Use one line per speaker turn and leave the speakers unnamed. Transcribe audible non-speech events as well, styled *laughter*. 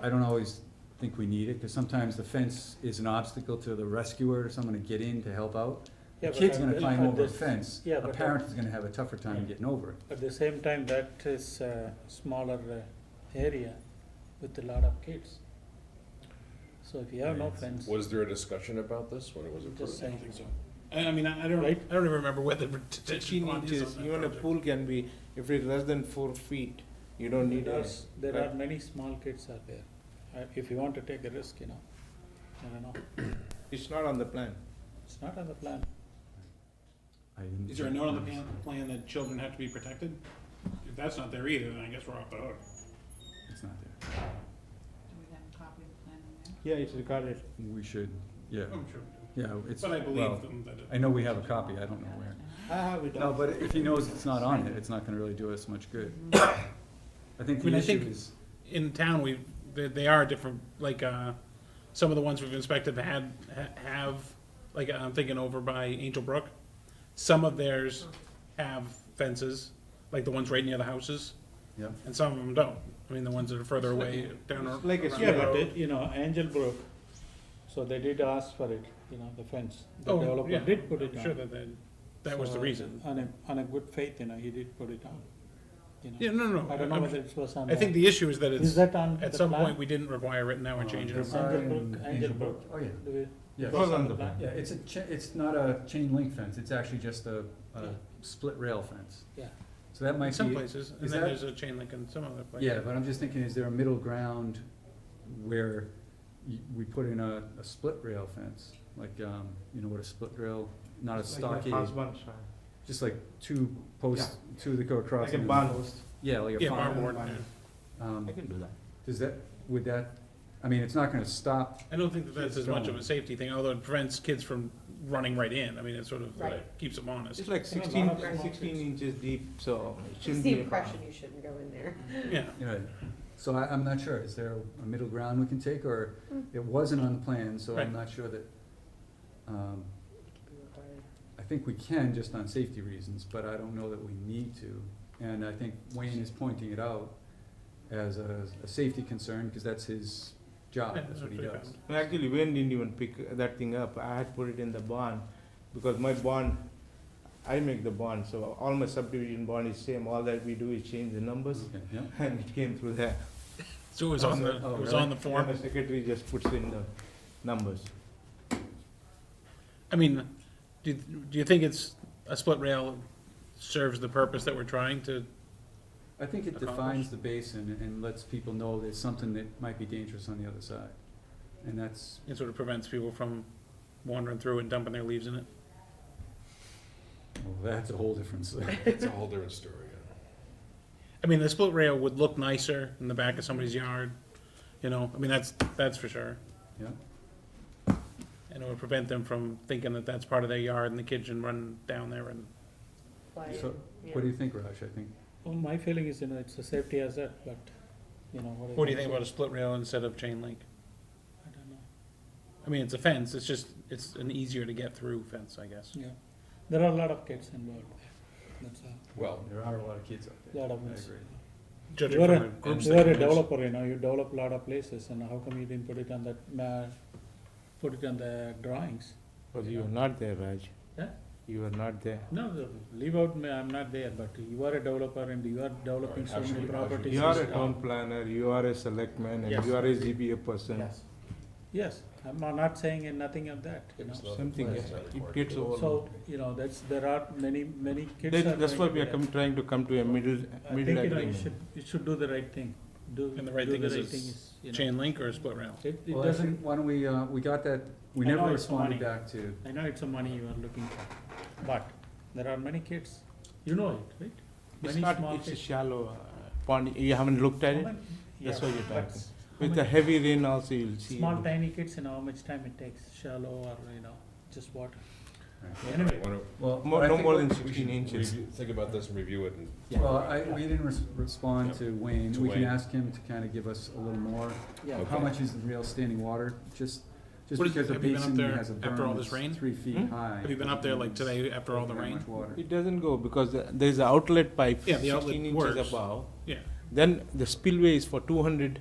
I don't always think we need it, because sometimes the fence is an obstacle to the rescuer or someone to get in to help out.
Yeah,
The
but
kid's
at
gonna
the-
climb
at
over a
the-
fence,
yeah,
a
but at-
parent is gonna have a tougher time getting over it.
At the same time, that is a smaller uh, area with a lot of kids. So if you have no fence,
Was there a discussion about this when it was approved?
just saying.
I I mean, I I don't, I
Right.
don't even remember what the detention
Fifteen
pond is
inches,
on
even a
that project.
pool can be, if it's less than four feet, you don't need
There
a.
are, there
right?
are many small kids out there. Uh, If you want to take a risk, you know, I don't know,
It's not on the plan.
it's not on the plan.
I didn't-
Is there a note on the plan, plan that children have to be protected? If that's not there either, then I guess we're off the hook.
It's not there.
Do we have a copy of the plan in there?
Yeah, it's recorded.
We should, yeah,
I'm sure.
yeah, it's,
But I
well,
believe them that
I
it,
know we have a copy, I don't know where.
I have it.
No,
on.
but if he knows it's not on it, it's not gonna really do us much good. I think
I mean,
the
I
issue
think-
is,
in town, we, they, they are different, like, uh, some of the ones we've inspected had, ha- have, like, I'm thinking over by Angel Brook. Some of theirs have fences, like the ones right near the houses,
yeah,
and some of them don't. I mean, the ones that are further away down. or-
It's like a
around the
Yeah, but,
road.
it- you know, Angel Brook, so they did ask for it, you know, the fence. The
Oh,
developer
yeah.
did put it
I'm
on.
Sure that, that, that was the
So,
reason.
On a, on a good faith, you know, he did put it on, you know.
Yeah, no, no,
I don't know
no.
whether it was on.
I think the issue is that
Is
it's,
that on
at
the
some
plan?
point, we didn't require it, now we're changing
It's
it.
on
Angel
in
Brook, Angel Brook.
Oh, yeah,
Do we-
yeah.
was on the
Yeah, it's a, cha- it's not a chain link fence, it's actually just a, a
Yeah.
split rail fence.
Yeah.
So that
In
might
some
be,
places, and
is
then
that-
there's a chain link in some other places.
yeah, but I'm just thinking, is there a middle ground where y we put in a, a split rail fence? Like, um, you know what a split rail, not a
It's like my
stockade,
husband's, uh,
just like two posts, two that go across.
Like a
and-
barn.
Yeah, like a
Yeah,
farm.
barn board, yeah.
Um,
can do that.
does that, would that, I mean, it's not gonna stop,
I don't think that that's
Kids
as much
don't.
of a safety thing, although it prevents kids from running right in, I mean, it sort of
Right.
like, keeps them honest.
It's like
It's in a
sixteen,
lot of
sixteen
boxes.
inches deep, so it
It's
shouldn't
the
be a problem.
impression you shouldn't go in
*laughs*
there.
Yeah,
you know, so I, I'm not sure, is there a middle ground we can take, or it wasn't on the plan, so I'm
Right.
not sure that, um, I think we can just on safety reasons, but I don't know that we need to. And I think Wayne is pointing it out as a, a safety concern, because that's his job,
Yeah,
that's what he
that's what
does.
he
And Actually, Wayne didn't even pick that thing up. I had put it in the bond because my bond, I make the bond, so all my subdivision bond is same. All that we do is change the numbers *laughs*
Okay, yeah.
and it came through there.
so it was on the,
Oh,
it was
really?
on the
And
form.
The secretary just puts in the numbers.
I mean, do, do you think it's, a split rail serves the purpose that we're trying to,
I think it
Accomplish.
defines the basin and lets people know there's something that might be dangerous on the other side. And that's,
it sort of prevents people from wandering through and dumping their leaves in it?
well, that's a whole different story.
It's a whole different story. yeah.
I mean, the split rail would look nicer in the back of somebody's yard, you know, I mean, that's, that's for sure.
Yeah.
And it would prevent them from thinking that that's part of their yard and the kids can run down there and,
So, What do you think, Raj? I think,
Well, Oh, my feeling is, you know, it's a safety hazard, but, you know, what.
what do you think about a split rail instead of chain link?
I don't know,
I mean, it's a fence, it's just, it's an easier to get through fence, I guess.
yeah, there are a lot of kids involved, that's all,
Well,
there are a lot of kids out there.
lot
I
of. kids.
agree.
Judging
You are
from
a,
the groups
you
that
are a
it is.
developer, you know, you develop a lot of places, and how come you didn't put it on that, ma- put it on the drawings?
But you were not there, Raj.
Huh?
You were not there.
No, no, leave out, me, I'm not there, but you are a developer and you are developing so many
Actually,
properties.
You are a
Yes.
town planner, you are a selectman, and
Yes.
you are a ZBA person.
Yes, I'm not saying in nothing of that, you
it was
know,
not-
Something,
it's
yeah.
not
It
required.
gets over.
so, you know, that's, there are many, many kids are
That- That's
going
why
to
we are
that.
come, trying to come to a middle,
I think, you
middle
know, you
agreement.
should, you should do the right thing, do, do
And
the
the
right
right thing is a
thing is, you know,
Chain link or a split rail?
it, it
Well, I
doesn't,
think, why don't we, uh, we got that, we
I know
never
it's
responded
funny.
back to,
I know it's a money you are looking for, but there are many kids, you know it, right?
It's
Many
not,
small
it's a
kids.
shallow uh, pond, you haven't looked at
How
it?
many-
That's
yeah,
why you're
but
talking.
s- how
With the
many
heavy rain also, you'll see.
Small
it.
tiny kids, you know, how much time it takes, shallow or, you know, just water,
Right.
anyway.
Why don't
well.
More-
I
no
think
more
what-
than
we
sixteen
should
inches.
review- Think about this and review it and.
Yeah.
Well, I, we didn't res- respond to Wayne,
To
we can
Wayne.
ask him to kind of give us a little more,
Yeah.
how
Okay.
much is the real standing water, just, just
What is-
because the
have you been
basin
up there
has a
after all
berm
this rain?
that's three feet
Hmm?
high.
Have you been up there like today after all the
How
rain?
much water?
It doesn't go because the- there's an outlet pipe
Yeah, the outlet
sixteen inches
works.
above.
Yeah.
Then the spillway is for two hundred